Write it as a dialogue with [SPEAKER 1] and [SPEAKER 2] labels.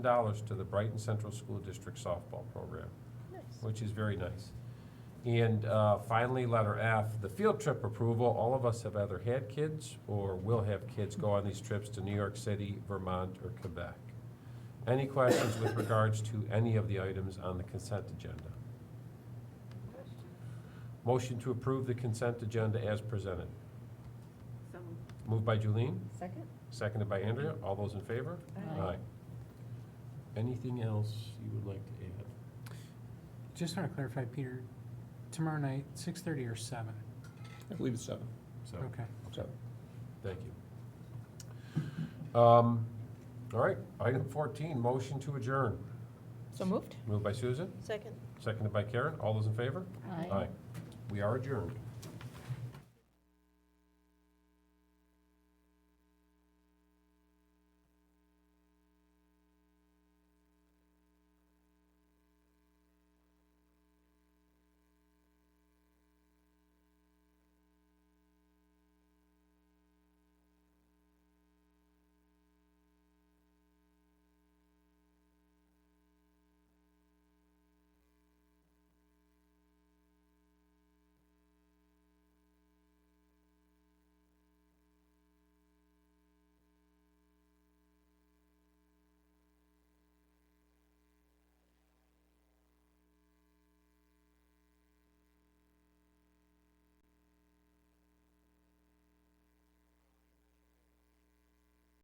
[SPEAKER 1] dollars to the Brighton Central School District softball program, which is very nice. And uh, finally, letter F, the field trip approval. All of us have either had kids or will have kids go on these trips to New York City, Vermont, or Quebec. Any questions with regards to any of the items on the consent agenda? Motion to approve the consent agenda as presented.
[SPEAKER 2] So moved.
[SPEAKER 1] Moved by Julene,
[SPEAKER 2] Second?
[SPEAKER 1] seconded by Andrea. All those in favor?
[SPEAKER 3] uh,
[SPEAKER 2] Aye.
[SPEAKER 1] Anything else you would like to add?
[SPEAKER 4] Just want to clarify, Peter, tomorrow night, six thirty or seven?
[SPEAKER 5] I believe it's seven.
[SPEAKER 1] So,
[SPEAKER 4] Okay.
[SPEAKER 5] Seven.
[SPEAKER 1] thank you. Um, All right, item 14, motion to adjourn.
[SPEAKER 3] So moved?
[SPEAKER 1] Moved by Susan,
[SPEAKER 3] Second.
[SPEAKER 1] seconded by Karen. All those in favor? We are adjourned.